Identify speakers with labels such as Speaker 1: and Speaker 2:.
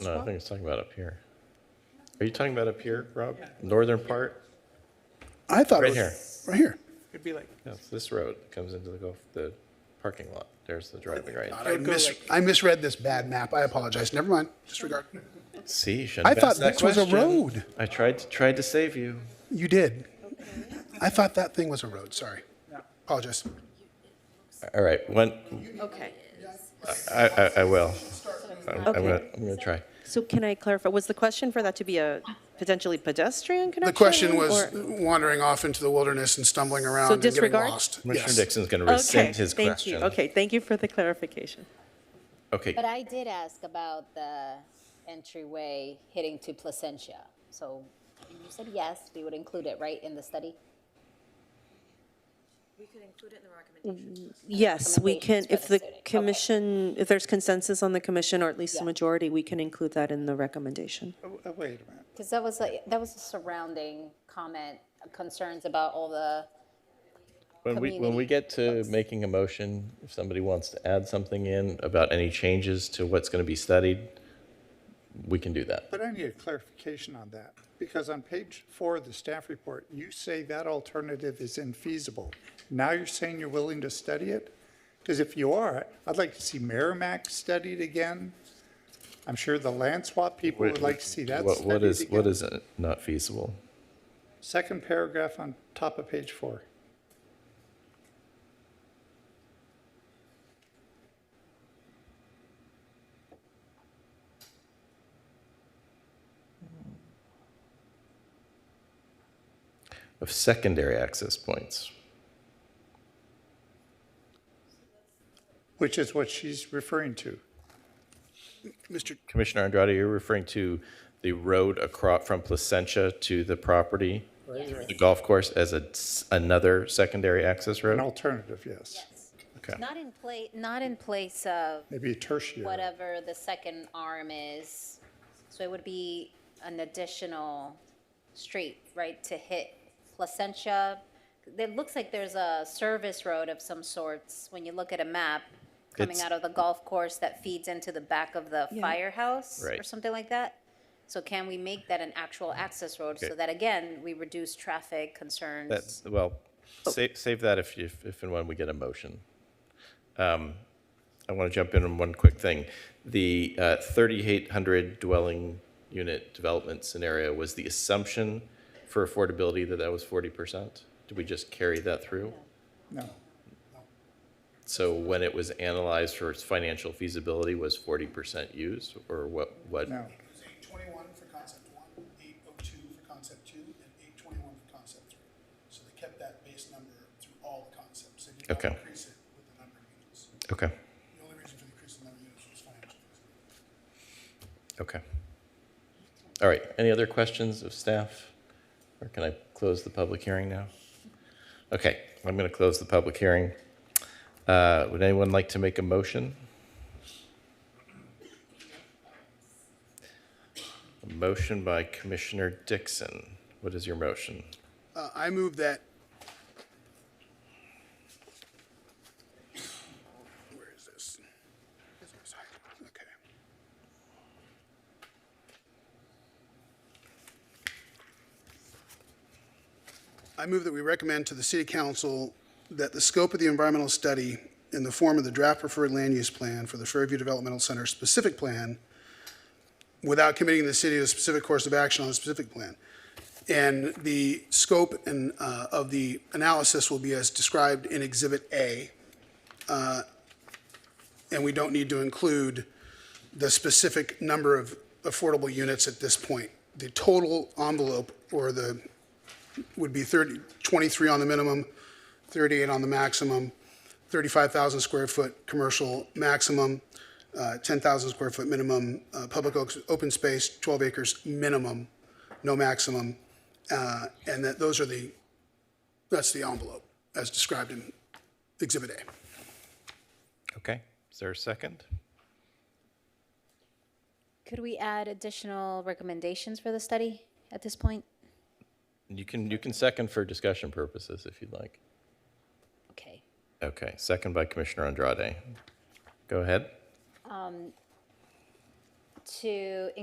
Speaker 1: No, I think it's talking about up here. Are you talking about up here, Rob? Northern part?
Speaker 2: I thought
Speaker 1: Right
Speaker 2: it was right here.
Speaker 3: It'd be like,
Speaker 1: Yes, this road that comes into the golf, the parking lot. There's the driving range.
Speaker 2: I, mis- I misread this bad map. I apologize. Never mind. Disregard.
Speaker 1: See, you
Speaker 2: I
Speaker 1: shouldn't have
Speaker 2: thought
Speaker 1: asked that
Speaker 2: this was a
Speaker 1: question.
Speaker 2: road.
Speaker 1: I tried, to tried to save you.
Speaker 2: You did. I thought that thing was a road. Sorry. Apologize.
Speaker 1: All right, one,
Speaker 4: Okay.
Speaker 1: I, I, I will. I'm I'm gonna, I'm gonna try.
Speaker 4: So can I clarify, was the question for that to be a potentially pedestrian connection?
Speaker 2: The question was
Speaker 4: or-
Speaker 2: wandering off into the wilderness and stumbling around and getting
Speaker 4: disregard?
Speaker 2: lost.
Speaker 1: Commissioner
Speaker 2: Yes.
Speaker 1: Dixon's gonna
Speaker 4: Okay,
Speaker 1: rescind his question.
Speaker 4: thank you. Okay, thank you for the clarification.
Speaker 1: Okay,
Speaker 5: But I did ask about the entryway hitting to Placentia. So you said yes, we would include it, right, in the study?
Speaker 6: We could include it in the recommendation.
Speaker 4: Yes, we
Speaker 5: Recommendations
Speaker 4: can,
Speaker 5: for
Speaker 4: if
Speaker 5: the
Speaker 4: the
Speaker 5: city. Okay.
Speaker 4: commission, if there's consensus on the commission, or at least a
Speaker 5: Yeah.
Speaker 4: majority, we can include that in the recommendation.
Speaker 3: oh, oh, wait a minute.
Speaker 5: Because that was, a- that was a surrounding comment, concerns about all the,
Speaker 1: when we, when we
Speaker 5: community
Speaker 1: get to making a motion, if somebody wants to add something in about any changes to what's gonna be studied, we can do that.
Speaker 3: But I need a clarification on that, because on page four of the staff report, you say that alternative is infeasible. Now you're saying you're willing to study it? Because if you are, I'd like to see Merrimack studied again. I'm sure the land swap people would like to see that
Speaker 1: What, what
Speaker 3: studied
Speaker 1: is, what
Speaker 3: again.
Speaker 1: is uh, not feasible?
Speaker 3: Second paragraph on top of page four.
Speaker 1: Of secondary access points.
Speaker 3: Which is what she's referring to.
Speaker 2: Mr.
Speaker 1: Commissioner Andrade, you're referring to the road across from Placentia to the property, the golf course as a, s- another secondary access
Speaker 3: An
Speaker 1: road?
Speaker 3: alternative, yes.
Speaker 1: Okay.
Speaker 5: not in place, not in place of
Speaker 3: Maybe a tertiary.
Speaker 5: whatever the second arm is. So it would be an additional street, right, to hit Placentia? It looks like there's a service road of some sorts when you look at a map coming
Speaker 1: It's-
Speaker 5: out of the golf course that feeds into the back of the firehouse or
Speaker 1: Right.
Speaker 5: something like that. So can we make that an actual access road so
Speaker 1: Okay.
Speaker 5: that, again, we reduce traffic concerns?
Speaker 1: That's, well, save, save that if, you- if, if and when we get a motion. Um, I want to jump in on one quick thing. The uh, 3,800 dwelling unit development scenario was the assumption for affordability that that was 40%? Did we just carry that through?
Speaker 3: No.
Speaker 1: So when it was analyzed for its financial feasibility, was 40% used, or what, what?
Speaker 3: No.
Speaker 2: It was 821 for concept one, 802 for concept two, and 821 for concept three. So they kept that base number through all the concepts. They did not
Speaker 1: Okay.
Speaker 2: increase it with the number of units.
Speaker 1: Okay,
Speaker 2: The only reason for increasing the number of units was financial.
Speaker 1: okay. All right, any other questions of staff? Or can I close the public hearing now? Okay, I'm going to close the public hearing. Uh, Would anyone like to make a motion? A motion by Commissioner Dixon. What is your motion?
Speaker 2: Uh, I move that. Where is this? Okay. I move that we recommend to the city council that the scope of the environmental study in the form of the draft preferred land use plan for the Fairview Developmental Center specific plan without committing the city to a specific course of action on the specific plan. And the scope and, uh, of the analysis will be as described in Exhibit A. Uh, And we don't need to include the specific number of affordable units at this point. The total envelope or the, would be 30, 23 on the minimum, 38 on the maximum, 35,000 square foot commercial maximum, uh, 10,000 square foot minimum, uh, public oaks- open space, 12 acres minimum, no maximum, uh, and that those are the, that's the envelope as described in Exhibit A.
Speaker 1: Okay, is there a second?
Speaker 5: Could we add additional recommendations for the study at this point?
Speaker 1: You can, you can second for discussion purposes if you'd like.
Speaker 5: Okay.
Speaker 1: Okay, second by Commissioner Andrade. Go ahead.
Speaker 5: to